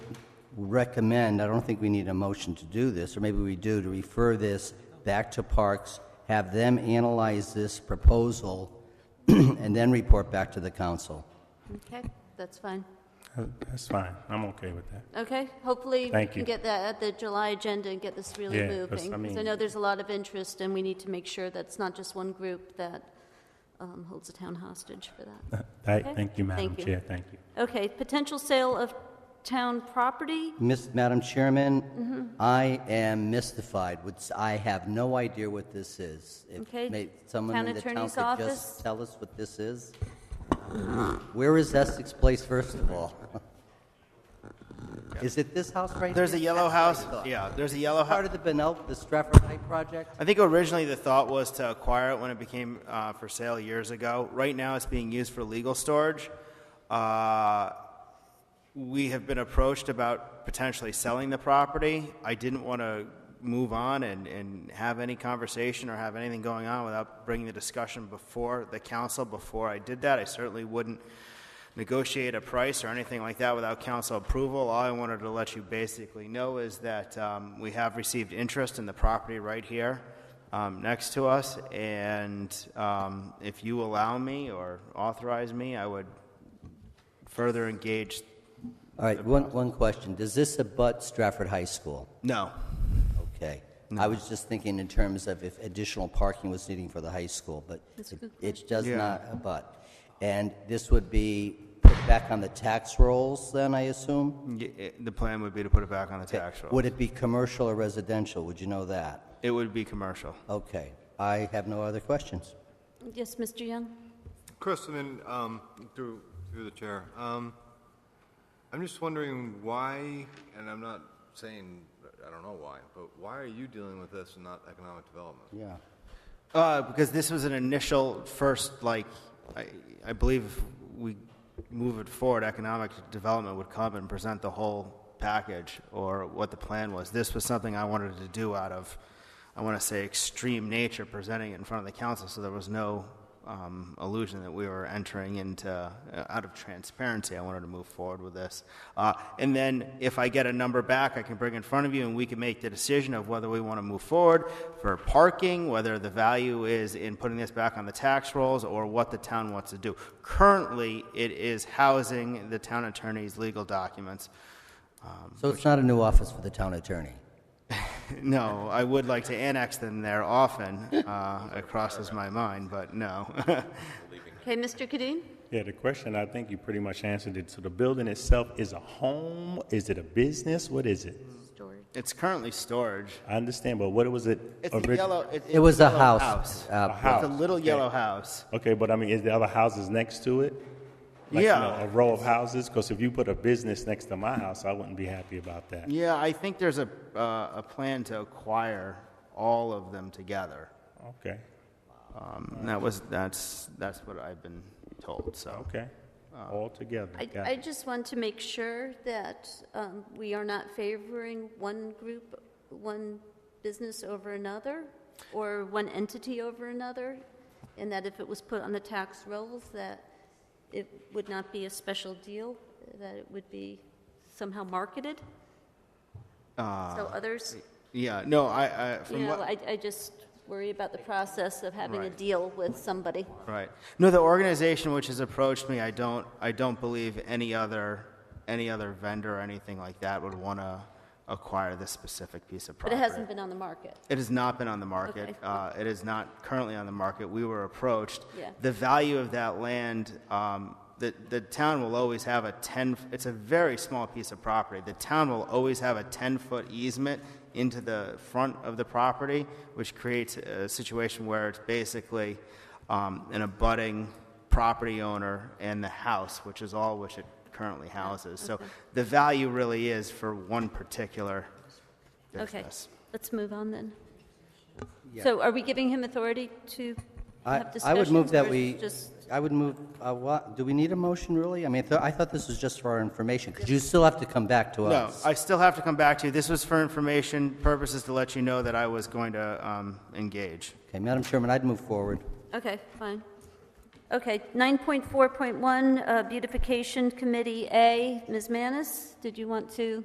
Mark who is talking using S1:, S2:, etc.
S1: recommend, I don't think we need a motion to do this, or maybe we do, to refer this back to Parks, have them analyze this proposal, and then report back to the council.
S2: Okay, that's fine.
S3: Uh, That's fine. I'm okay with that.
S2: Okay, hopefully we
S3: Thank
S2: can
S3: you.
S2: get that at the July agenda and get this really
S3: Yeah, 'cause,
S2: moving.
S3: I
S2: Because I
S3: mean-
S2: know there's a lot of interest, and we need to make sure that's not just one group that um, holds the town hostage for that.
S3: Thank,
S2: Uh, Okay.
S3: thank you, Madam
S2: Thank you.
S3: Chair. Thank you.
S2: Okay, potential sale of town property?
S1: Miss, Madam Chairman,
S2: Mm-hmm.
S1: I am mystified. Would s- I have no idea what this is. If
S2: Okay,
S1: may- Someone
S2: town
S1: in the town
S2: attorney's
S1: could
S2: office?
S1: just tell us what this is. Where is Essex Place, first of all? is it this house right
S4: There's a
S1: here?
S4: yellow
S1: That's
S4: house.
S1: what I thought.
S4: Yeah, there's a yellow
S1: Part
S4: house.
S1: of the Benel, the Stratford High project.
S4: I think originally the thought was to acquire it when it became uh, for sale years ago. Right now, it's being used for legal storage. Uh, we have been approached about potentially selling the property. I didn't want to move on and, and have any conversation or have anything going on without bringing the discussion before the council. Before I did that, I certainly wouldn't negotiate a price or anything like that without council approval. All I wanted to let you basically know is that um, we have received interest in the property right here um, next to us, and um, if you allow me or authorize me, I would further engage
S1: All right, one, one question. Does this abut Stratford High School?
S4: No.
S1: Okay. I was just thinking in terms of if additional parking was needing for the high school, but
S2: That's a
S1: it-
S2: good
S1: it does
S4: Yeah.
S1: not abut. And this would be put back on the tax rolls then, I assume?
S4: Y- it- The plan would be to put it back on the tax roll.
S1: Would it be commercial or residential? Would you know that?
S4: It would be commercial.
S1: Okay. I have no other questions.
S2: Yes, Mr. Young?
S5: Chrisman, um, through, through the chair, um, I'm just wondering why, and I'm not saying, I don't know why, but why are you dealing with this and not economic development?
S1: Yeah.
S4: Uh, because this was an initial first, like, I, I believe if we move it forward, economic development would come and present the whole package or what the plan was. This was something I wanted to do out of, I want to say, extreme nature, presenting it in front of the council, so there was no um, illusion that we were entering into, uh, out of transparency, I wanted to move forward with this. Uh, and then if I get a number back, I can bring in front of you and we can make the decision of whether we want to move forward for parking, whether the value is in putting this back on the tax rolls or what the town wants to do. Currently, it is housing the town attorney's legal documents.
S1: So it's not a new office for the town attorney?
S4: No, I would like to annex them there often. Uh, it crosses my mind, but no.
S2: Okay, Mr. Kadim?
S3: Yeah, the question, I think you pretty much answered it. So the building itself is a home? Is it a business? What is it?
S2: Story.
S4: it's currently storage.
S3: I understand, but what was it?
S4: It's the
S3: orig-
S4: yellow. It,
S1: It was a
S4: yellow
S1: house. uh,
S3: A house.
S4: It's a little yellow house.
S3: Okay, but I mean, is the other houses next to it? Like, you
S4: Yeah.
S3: know, A row of houses? Because if you put a business next to my house, I wouldn't be happy about that.
S4: Yeah, I think there's a uh, a plan to acquire all of them together.
S3: Okay,
S4: Um, that was that's that's what I've been told. So
S3: okay.
S4: Ah.
S3: All together.
S2: I,
S3: Got
S2: I
S3: it.
S2: just want to make sure that um, we are not favoring one group, one business over another, or one entity over another, and that if it was put on the tax rolls, that it would not be a special deal, that it would be somehow marketed, so others,
S4: yeah, no, I, I
S2: you
S4: Uh, from
S2: know,
S4: what
S2: I, I just worry about the process of having a
S4: Right.
S2: deal with somebody.
S4: right. No, the organization which has approached me, I don't I don't believe any other any other vendor or anything like that would want to acquire this specific piece of
S2: But it
S4: property.
S2: hasn't been on the market.
S4: It has not been on the market.
S2: Okay.
S4: Uh, It is not currently on the market. We were approached.
S2: Yeah.
S4: The value of that land, um, the, the town will always have a 10, it's a very small piece of property. The town will always have a 10-foot easement into the front of the property, which creates a situation where it's basically um, an abutting property owner and the house, which is all which it currently houses. So the value really is for one particular
S2: Okay,
S4: business.
S2: let's move on then. So are we giving him authority to
S1: I
S2: have
S1: I would move
S2: discussions
S1: that
S2: or
S1: we,
S2: is just?
S1: I would move, uh, what, do we need a motion, really? I mean, I thought- I thought this was just for our information, because you still have to come back to
S4: No,
S1: us.
S4: I still have to come back to you. This was for information purposes to let you know that I was going to um, engage.
S1: Okay, Madam Chairman, I'd move forward.
S2: Okay, fine. Okay, 9.4.1, uh, Beautification Committee A. Ms. Manis, did you want to?